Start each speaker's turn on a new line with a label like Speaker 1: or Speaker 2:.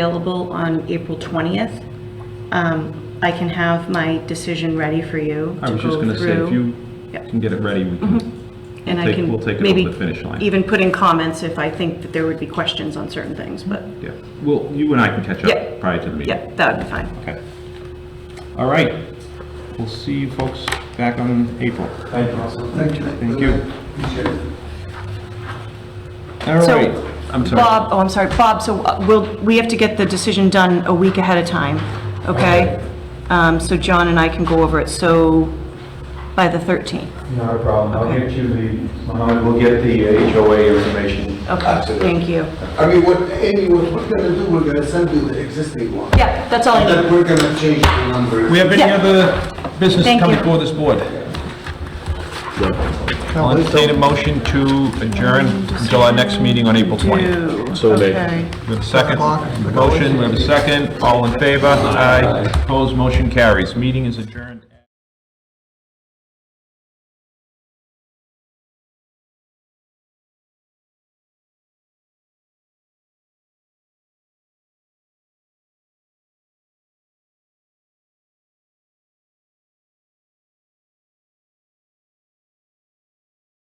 Speaker 1: available on April 20th. Um, I can have my decision ready for you
Speaker 2: I
Speaker 1: to
Speaker 2: was just
Speaker 1: go Mm-hmm.
Speaker 2: gonna say, if you
Speaker 1: through. Yep.
Speaker 2: can get it ready, we can,
Speaker 1: And I
Speaker 2: take-
Speaker 1: can
Speaker 2: we'll take it over
Speaker 1: maybe
Speaker 2: the finish line.
Speaker 1: Even put in comments if I think that there would be questions on certain things, but,
Speaker 2: yeah. Well, you and I can catch
Speaker 1: Yeah.
Speaker 2: up prior to the meeting.
Speaker 1: yeah, that would be fine.
Speaker 2: Okay. All right. We'll see you folks back on April.
Speaker 3: Thank you. Thank you.
Speaker 2: Thank you.
Speaker 3: Appreciate it.
Speaker 2: All
Speaker 1: So,
Speaker 2: right. I'm sorry.
Speaker 1: Bob, oh, I'm sorry, Bob, so uh, we'll, we have to get the decision done a week ahead of time, okay? Um, so John and I can go over it, so by the 13th.
Speaker 4: Not a problem. I'll
Speaker 1: Okay.
Speaker 4: get you the, Mohammed, we'll get the uh, HOA information.
Speaker 1: Okay,
Speaker 4: after this.
Speaker 1: thank you.
Speaker 3: I mean, what, Amy, what we're gonna do, we're gonna send you the existing one.
Speaker 1: Yeah, that's all I
Speaker 3: And
Speaker 1: need.
Speaker 3: then we're gonna change the number.
Speaker 2: We have any
Speaker 1: Yeah.
Speaker 2: other business to
Speaker 1: Thank
Speaker 2: come
Speaker 1: you.
Speaker 2: before this board? I'll entertain a motion to adjourn until our next meeting on April 20th.
Speaker 1: So
Speaker 2: We have a second motion, we have a second, all in favor? Aye. Opposed, motion carries. Meeting is adjourned.